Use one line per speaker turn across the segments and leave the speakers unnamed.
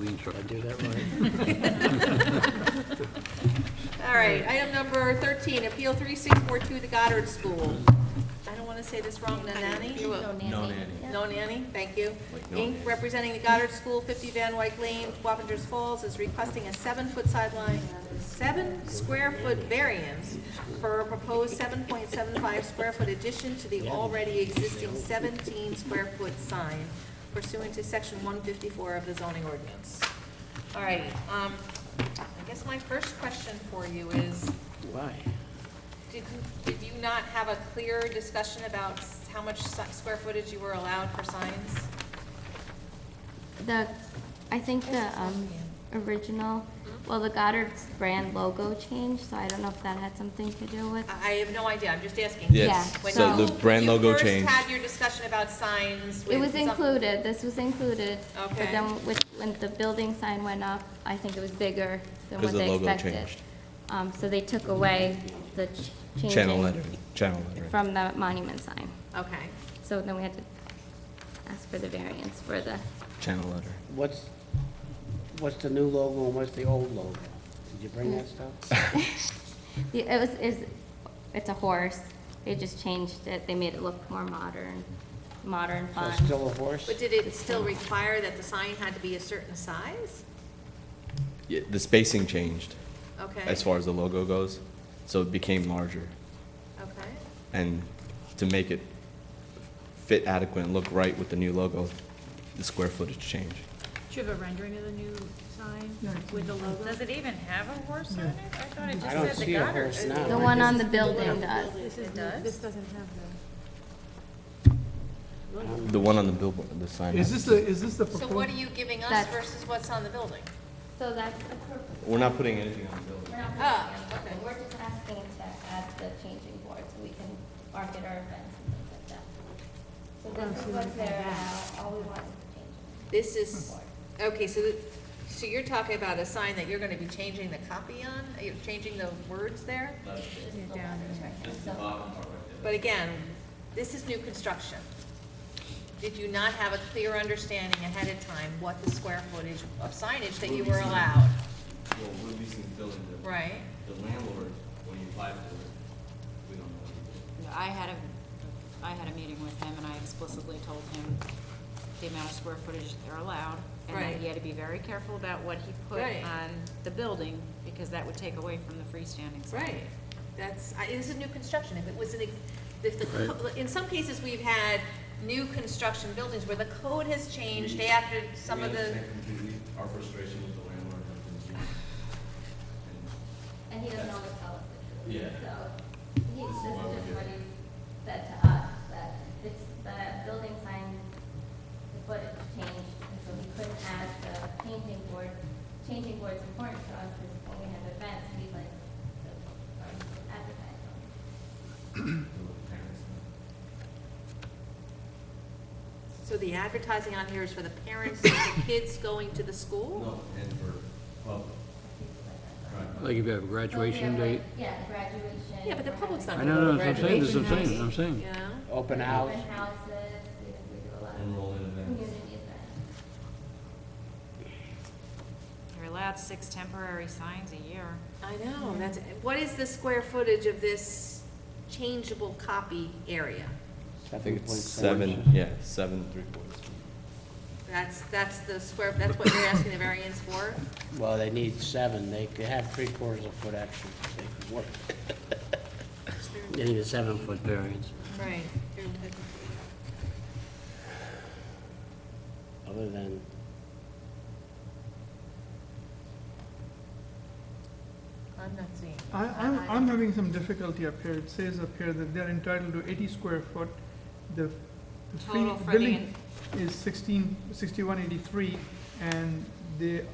Did I do that
All right, item number 13, Appeal 3642, the Goddard School. I don't want to say this wrong, Nanani?
No nanny.
No Nanny, thank you.
Like no
Inc.,
nanny.
representing the Goddard School, 50 Van Wyck Lane, Wappingers Falls, is requesting a seven-foot sideline, seven-square-foot variance for a proposed 7.75-square-foot addition to the already existing 17-square-foot sign pursuant to Section 154 of the zoning ordinance. All right, um, I guess my first question for you is,
Why?
did, did you not have a clear discussion about s- how much si- square footage you were allowed for signs?
The, I think the, um, original, well, the Goddard brand logo changed, so I don't know if that had something to do with.
I I have no idea, I'm just asking.
Yes,
Yeah,
When
so
you-
the brand
you
logo
first
changed.
had your discussion about signs with.
It was
some-
included, this was included.
Okay.
But then with, when the building sign went up, I think it was bigger than
'Cause
what
the
they
logo
expected.
changed.
Um, so they took away the ch- changing.
Channel lettering, channel lettering.
From the monument sign.
Okay,
So then we had to ask for the variance for the,
Channel lettering.
What's, what's the new logo and what's the old logo? Did you bring that stuff?
the- it was, is, it's a horse. They just changed it, they made it look more modern, modern
So
fun.
it's still a horse?
but did it still require that the sign had to be a certain size?
Yeah, The spacing changed
Okay.
as far as the logo goes, so it became larger.
Okay,
And to make it fit adequate and look right with the new logo, the square footage changed.
Do you have a rendering of the new sign with the logo?
Does it even have a horse on it? I thought it
I don't
just said the
see a
Goddard.
horse now.
The
Like,
one
this
on
is-
the building does.
It does?
doesn't have the.
The one on the billboard, the sign.
Is this the, is this the
so what are
proposed?
you giving us
That's-
versus what's on the building?
So that's,
We're not putting anything on the building.
Oh,
Ah, okay.
we're just asking to add the changing board so we can market our events and things like that. So this is what's there now, all we want is the changing.
This is, okay, so, the- so you're talking about a sign that you're gonna be changing the copy on, you're changing the words there? But again, this is new construction. Did you not have a clear understanding ahead of time what the square footage of signage that you were allowed?
Well, we're leasing the building,
Right?
the landlord, when he applied for it, we don't know.
I had a, I had a meeting with him and I explicitly told him the amount of square footage they're allowed. And
Right.
that he had to be very careful about what he put
Right.
on the building because that would take away from the freestanding sign.
Right. That's, I, this is new construction. If it was an, ex- if the, co- in some cases, we've had new construction buildings where the code has changed after some of the,
completely our frustration with the landlord
And he doesn't always tell us the truth.
Yeah.
So, he, this is just what he said to us, that it's, the building sign, the footage changed, and so we couldn't add the changing board. Changing board's important to us, because when we have events, we like to advertise them.
so the advertising on here is for the parents of the kids going to the school?
and for, well,
Like if you have a graduation date,
Oh, Yeah, graduation.
Yeah, but the public's not
I
gonna
know,
go
no, that's
to
what I'm saying, that's
graduation.
what I'm saying, I'm
You
saying.
know?
Open house?
Open houses, we we do a lot of
enroll in events.
community events.
You're allowed six temporary signs a year.
I know, that's, what is the square footage of this changeable copy area?
I think it's
7.4.
seven, yeah, seven, three quarters.
That's, that's the square, that's what you're asking the variance for?
Well, they need seven, they could have three quarters of a foot extra, if they could work. They need a seven-foot variance.
Right.
Other than,
I'm not seeing.
I, I'm, I'm having some difficulty up here. It says up here that they're entitled to eighty square foot. The, the free
Total for the
building is sixteen, sixty-one eighty-three, and they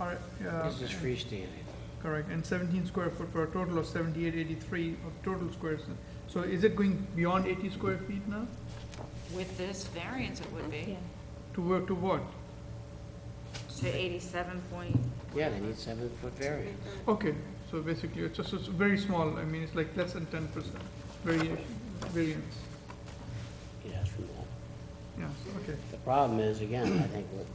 are, uh,
this is freestanding.
correct, and seventeen square foot for a total of seventy-eight eighty-three of total squares. So is it going beyond eighty square feet now?
With this variance, it would be
To work, to what?
to eighty-seven point.
Yeah, they need seven-foot variance.
Okay, so basically, it's just, it's very small, I mean, it's like less than ten percent variation, variance,
Yes, we want.
yeah, so, okay.
The problem is, again, I think what